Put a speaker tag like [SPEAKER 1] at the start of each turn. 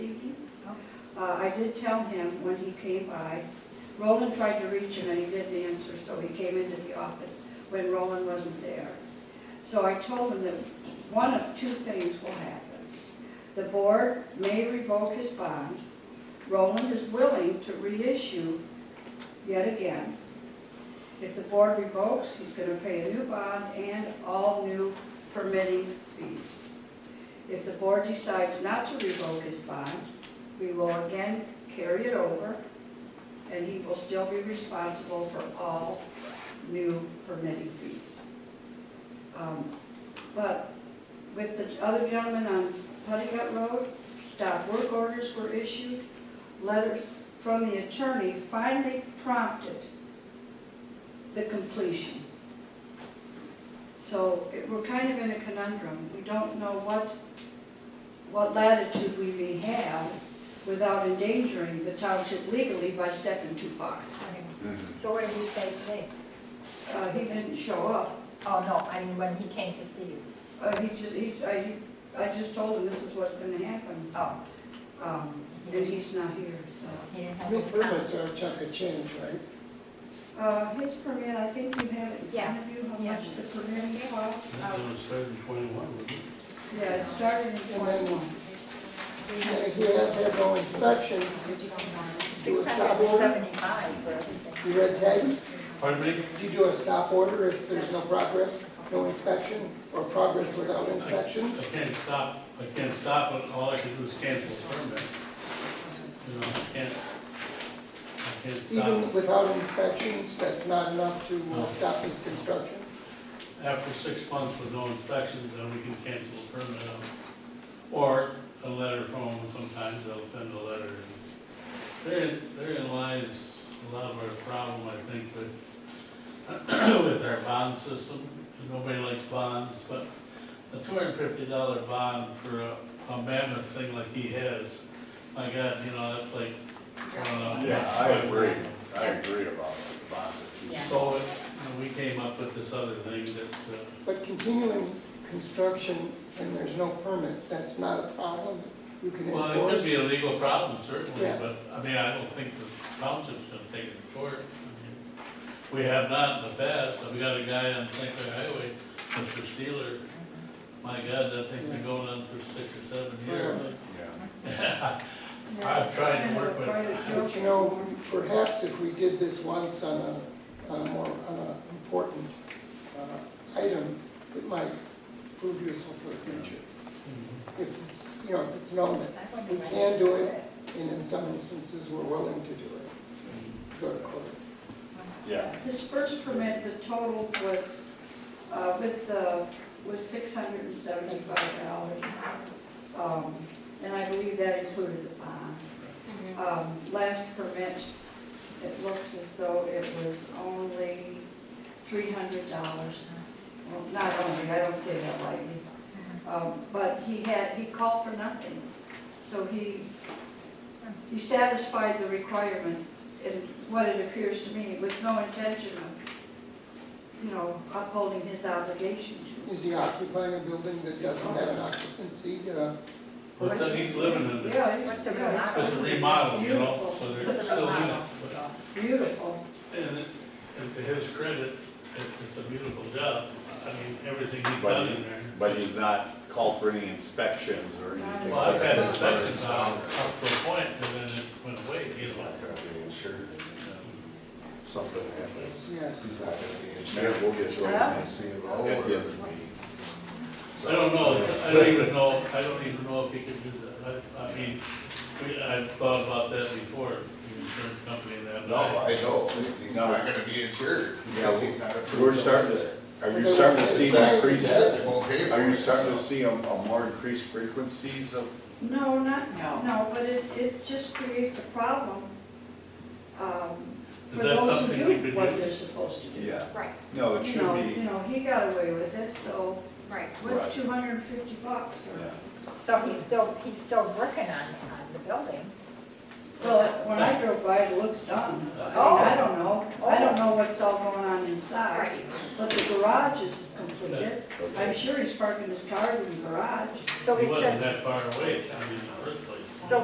[SPEAKER 1] Uh, did tell him when he came by, Roland tried to reach him and he didn't answer, so he came into the office when Roland wasn't there. So I told him that one of two things will happen. The board may revoke his bond. Roland is willing to reissue yet again. If the board revokes, he's gonna pay a new bond and all new permitting fees. If the board decides not to revoke his bond, we will again carry it over, and he will still be responsible for all new permitting fees. Um, But with the other gentleman on Puttigat Road, stop work orders were issued, letters from the attorney finally prompted the completion. So it- we're kind of in a conundrum. We don't know what, what latitude we may have without endangering the township legally by stepping too far.
[SPEAKER 2] Okay.
[SPEAKER 3] Mhm.
[SPEAKER 2] So what did he say today?
[SPEAKER 1] Uh, he didn't show up.
[SPEAKER 2] Oh, no, I mean, when he came to see you.
[SPEAKER 1] Uh, he just, he, I, he- I just told him this is what's gonna happen.
[SPEAKER 2] Oh,
[SPEAKER 1] Um, and he's not here, so.
[SPEAKER 2] he didn't have
[SPEAKER 4] Your
[SPEAKER 2] any
[SPEAKER 4] permits
[SPEAKER 2] comments.
[SPEAKER 4] are a chunk of change, right?
[SPEAKER 1] Uh, his permit, I think you have it in front of you, how
[SPEAKER 2] Yeah.
[SPEAKER 1] much the permit costs.
[SPEAKER 5] That's on the seven twenty-one, wasn't it?
[SPEAKER 1] Yeah, it started in twenty-one.
[SPEAKER 4] And if he has had no inspections,
[SPEAKER 2] Six hundred and seventy-five for everything.
[SPEAKER 4] you read ten,
[SPEAKER 5] Pardon me?
[SPEAKER 4] you do a stop order if there's no progress, no inspection, or progress without
[SPEAKER 5] I
[SPEAKER 4] inspections.
[SPEAKER 5] can't stop, I can't stop, it. all I can do is cancel the permit. You know, I can't, I can't
[SPEAKER 4] Even
[SPEAKER 5] stop.
[SPEAKER 4] without inspections, that's not enough to uh, stop the construction.
[SPEAKER 5] After six months with no inspections, then we can cancel the permit out. Or a letter from them, sometimes they'll send a letter. Therein, therein lies a lot of our problem, I think, with, with our bond system. Nobody likes bonds, but a two hundred and fifty dollar bond for a, a mammoth thing like he has, my God, you know, that's like, I don't know.
[SPEAKER 3] Yeah, I agree, I agree about the bonds that you.
[SPEAKER 5] So, it- and we came up with this other thing that, uh,
[SPEAKER 4] But continuing construction and there's no permit, that's not a problem. You can
[SPEAKER 5] well, it could be
[SPEAKER 4] enforce.
[SPEAKER 5] a legal problem certainly,
[SPEAKER 4] Yeah.
[SPEAKER 5] but, I mean, I don't think the township's gonna take it to court. I mean, We have not in the past, we got a guy on Sinclair Highway, Mr. Steeler, my God, that thing's been going on for six or seven years.
[SPEAKER 3] Yeah.
[SPEAKER 5] I've tried to work with-
[SPEAKER 1] Quite a joke.
[SPEAKER 4] But you know, perhaps if we did this once on a, on a more, on a important uh, item, it might prove useful for the future. If, it's- you know, if it's known that
[SPEAKER 2] I wonder
[SPEAKER 4] We
[SPEAKER 2] when
[SPEAKER 4] can
[SPEAKER 2] he
[SPEAKER 4] do
[SPEAKER 2] said
[SPEAKER 4] it. and in some instances, we're willing to do it, go to court.
[SPEAKER 3] Yeah,
[SPEAKER 1] His first permit, the total was, uh, with the, was six hundred and seventy-five dollars. Um, and I believe that included the bond.
[SPEAKER 2] Mhm.
[SPEAKER 1] Um, last permit, it looks as though it was only three hundred dollars. Well, not only, I don't say that lightly. Um, but he had, he called for nothing. So he, he satisfied the requirement in what it appears to me with no intention of, you know, upholding his obligation to.
[SPEAKER 4] Is he occupying a building that doesn't have an occupancy? uh,
[SPEAKER 5] But then he's living in it.
[SPEAKER 1] Yeah, it's,
[SPEAKER 2] What's a
[SPEAKER 1] yeah,
[SPEAKER 5] It's a remodel, you know, so
[SPEAKER 2] It's
[SPEAKER 5] they're
[SPEAKER 2] a
[SPEAKER 5] still in it.
[SPEAKER 2] remodel,
[SPEAKER 5] but-
[SPEAKER 2] so.
[SPEAKER 1] it's beautiful.
[SPEAKER 5] And, it- and to his credit, it, it's a beautiful job. I mean, everything he's
[SPEAKER 3] But-
[SPEAKER 5] done in there.
[SPEAKER 3] but he's not called for any inspections or anything.
[SPEAKER 5] Well, I've
[SPEAKER 3] like
[SPEAKER 5] had
[SPEAKER 3] that.
[SPEAKER 5] inspections on up to a point, and then it went away, you know.
[SPEAKER 6] something happens,
[SPEAKER 4] Yes.
[SPEAKER 6] he's not gonna be in
[SPEAKER 3] Mayor,
[SPEAKER 6] shape.
[SPEAKER 3] we'll get
[SPEAKER 6] So
[SPEAKER 3] you.
[SPEAKER 6] he's gonna see him all
[SPEAKER 3] Yeah.
[SPEAKER 6] over the meeting.
[SPEAKER 5] I don't know, I don't even know, I don't even know if he could do that. I, I mean, we, I've thought about that before, the insurance company and that.
[SPEAKER 6] No, I know, he's
[SPEAKER 3] No.
[SPEAKER 6] not gonna be insured,
[SPEAKER 3] Yeah,
[SPEAKER 6] because he's not approved.
[SPEAKER 3] We're starting to, s- are you starting to see an increase?
[SPEAKER 6] They won't pay for
[SPEAKER 3] Are you
[SPEAKER 6] it,
[SPEAKER 3] starting to
[SPEAKER 6] so.
[SPEAKER 3] see a, a more increased frequencies of,
[SPEAKER 1] No, not,
[SPEAKER 2] No.
[SPEAKER 1] no, but it, it just creates a problem, um,
[SPEAKER 5] Is
[SPEAKER 1] for
[SPEAKER 5] that
[SPEAKER 1] those who
[SPEAKER 5] something we
[SPEAKER 1] do
[SPEAKER 5] could
[SPEAKER 1] what
[SPEAKER 5] do?
[SPEAKER 1] they're supposed to do.
[SPEAKER 3] yeah,
[SPEAKER 2] Right,
[SPEAKER 3] no, it
[SPEAKER 1] You
[SPEAKER 3] should
[SPEAKER 1] know,
[SPEAKER 3] be,
[SPEAKER 1] you know, he got away with it, so
[SPEAKER 2] right.
[SPEAKER 1] what's
[SPEAKER 3] Right.
[SPEAKER 1] two hundred and fifty bucks or?
[SPEAKER 3] yeah.
[SPEAKER 2] So he's still, he's still working on, on the building.
[SPEAKER 1] Well, when I drove by, it looks done. I mean,
[SPEAKER 2] Oh.
[SPEAKER 1] I don't know, I don't know what's all going on inside, but the garage is completed. I'm sure he's parking his cars in the garage.
[SPEAKER 2] So
[SPEAKER 5] He
[SPEAKER 2] it
[SPEAKER 5] wasn't
[SPEAKER 2] says,
[SPEAKER 5] that far away, I mean, in the first place.